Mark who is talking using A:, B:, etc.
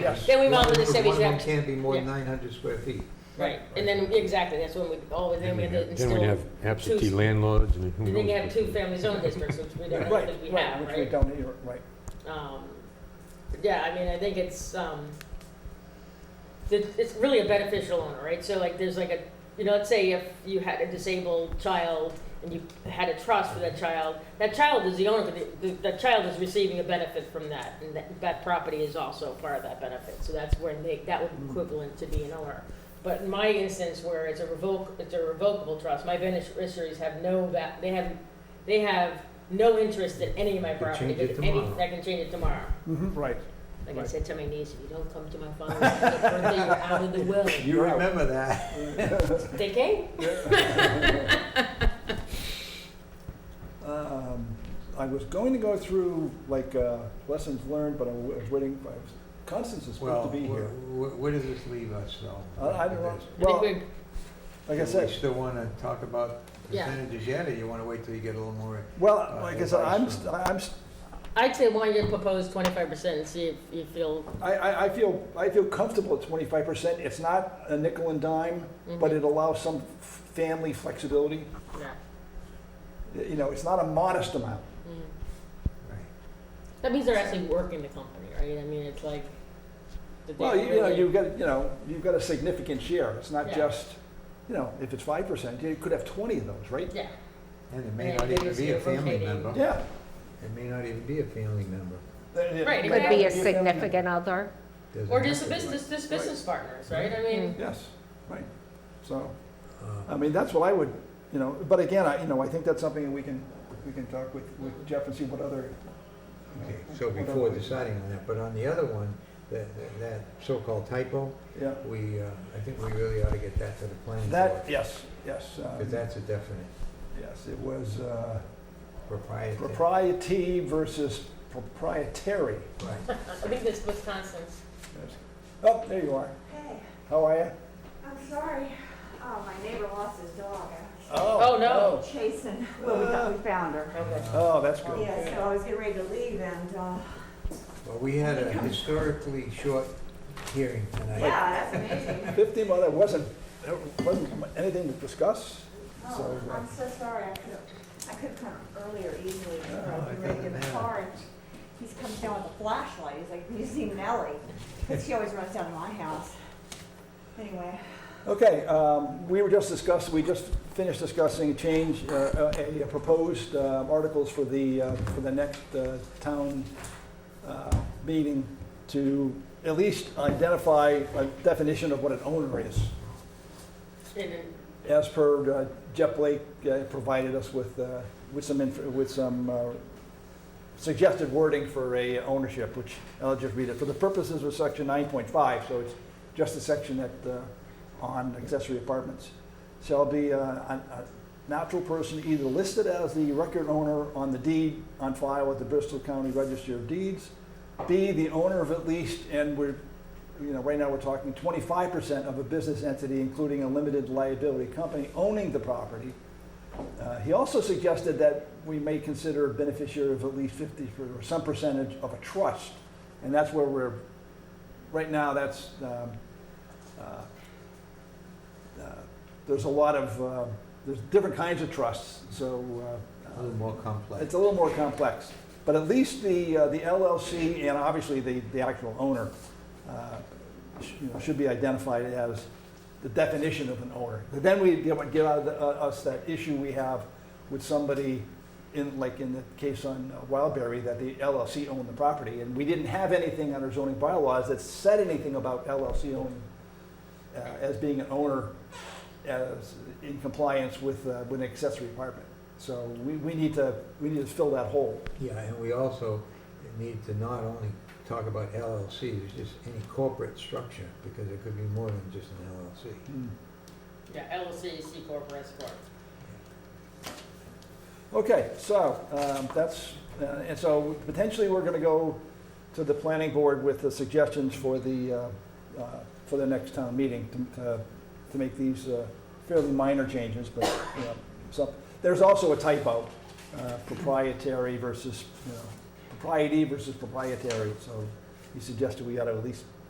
A: Yes.
B: Then we mount the
C: One-
B: Chevy
C: One of them
B: tractor.
C: can't be more than
B: Yeah.
C: 900 square feet.
B: Right, and then, exactly, that's when we, oh, then we had to
D: Then we'd
B: install,
D: have absentee
B: two-
D: landlords and who knows.
B: then you have two family zone districts, which we don't,
A: Right,
B: think we
A: right,
B: have,
A: which we
B: right?
A: don't either, right.
B: Um, Yeah, I mean, I think it's, um, it- it's really a beneficial owner, right? So like, there's like a, you know, let's say if you had a disabled child and you had a trust for that child, that child is the owner, but the- that child is receiving a benefit from that, and that, that property is also part of that benefit. So that's where they, that would be equivalent to being an owner. But in my instance, where it's a revoke, it's a revocable trust, my beneficiaries have no, va- they have, they have no interest in any of my
C: You could
B: property.
C: change it
B: because any-
C: tomorrow.
B: I can change it tomorrow.
A: Mhm, Right.
B: Like I
A: Right.
B: said to my niece, if you don't come to my father's birthday, you're out of the will.
C: You remember that?
B: They came.
A: Um, I was going to go through like uh, lessons learned, but I was waiting, I was- Constance is supposed
C: Well,
A: to be here. Uh,
C: wh- wh- where does this leave us though?
A: I I don't know,
C: With this?
B: I
A: well,
B: think
A: like I
C: Do we
A: said,
C: still want to talk about
B: Yeah.
C: percentages yet, or you want to wait till you get a little more?
A: well, like I said, I'm,
C: advice
A: st- I'm, st-
B: we're- I'd say why don't you propose twenty-five percent and see if you feel.
A: I, I I feel, I feel comfortable at twenty-five percent. It's not a nickel and dime, but it allows some f- family flexibility.
B: mm-hmm, Yeah.
A: You know, it's not a modest amount.
B: Mhm.
C: Right.
B: That means they're actually working the company, right? I mean, it's like. that they
A: Well, you you know,
B: really-
A: you've got, you know, you've got a significant share. It's not
B: Yeah.
A: just, you know, if it's five percent, you could have twenty of those, right?
B: Yeah,
C: And it may
B: Yeah,
C: not
B: they
C: even
B: just
C: be a
B: do
C: family
B: rotating.
C: member.
A: Yeah.
C: It may not even be a family member.
B: Right,
A: It
B: exactly.
E: Could be a
A: family-
E: significant other.
C: Doesn't
B: or
C: have
B: just
C: to
B: the
C: be.
B: business, just business partners, right? I mean,
A: Yes, right. So,
C: Uh,
A: I mean, that's what I would, you know, but again, I, you know, I think that's something that we can, we can talk with, with Jeff and see what other,
C: Okay, so before deciding on that, but on the other one, that, that- that so-called typo,
A: yeah.
C: we, uh, I think we really ought to get that to the planning board.
A: That, yes, yes. um,
C: Because that's a definite
A: Yes, it was uh,
C: proprietary.
A: propriety versus proprietary.
C: Right.
B: I think that's Wisconsin's.
A: Yes. Oh, there you are.
F: Hey,
A: How are you?
F: I'm sorry. Oh, my neighbor lost his dog. I
B: Oh, no.
F: was Chasing, well, we thought we found her.
B: Okay.
A: Oh, that's good.
F: Yeah, so I was getting ready to leave and, uh,
C: Well, we had a historically short hearing tonight.
F: yeah, that's amazing.
A: 15, well, there wasn't, there wasn't anything to discuss, so.
F: Oh,
A: uh,
F: I'm so sorry. I could have, I could have come earlier easily. but I was
C: No, it
F: getting ready to get in the
C: doesn't
F: car and he's comes down with a flashlight. He's like, you seen Nellie? Because she always runs down to my house. Anyway,
A: Okay, um, we were just discussing, we just finished discussing change, uh, uh, a a proposed uh, articles for the, uh, for the next uh, town uh, meeting to at least identify a definition of what an owner is,
B: And then-
A: as per uh, Jeff Blake uh, provided us with, uh, with some, inf- with some uh, suggested wording for a ownership, which I'll just read it. For the purposes of section 9.5, so it's just the section that, uh, on accessory apartments, shall be uh, a a natural person either listed as the record owner on the deed on file with the Bristol County Register of Deeds, B, the owner of at least, and we're, you know, right now we're talking 25% of a business entity, including a limited liability company owning the property, uh, He also suggested that we may consider a beneficiary of at least 50 per- or some percentage of a trust, and that's where we're, right now, that's, um, uh, uh, there's a lot of, uh, there's different kinds of trusts, so
C: A
A: uh,
C: little more complex.
A: it's a little more complex. But at least the, uh, the LLC and obviously the, the actual owner, uh, sh- you know, should be identified as the definition of an owner. But Then we, that would get out of the- uh, us that issue we have with somebody in, like in the case on uh, Wildberry, that the LLC owned the property. And we didn't have anything on our zoning bylaws that said anything about LLC owning, uh, as being an owner as, in compliance with, uh, with an accessory apartment. So we, we need to, we need to fill that hole.
C: Yeah, and we also need to not only talk about LLCs, just any corporate structure, because it could be more than just an LLC.
B: Yeah, LLC, C corp, or S corp.
A: Okay, so um, that's, uh, and so potentially we're going to go to the planning board with the suggestions for the, uh, uh, for the next town meeting to- to, to make these uh, fairly minor changes, but, you know, so, there's also a typo, uh, proprietary versus, you know, propriety versus proprietary, so he suggested we ought to at least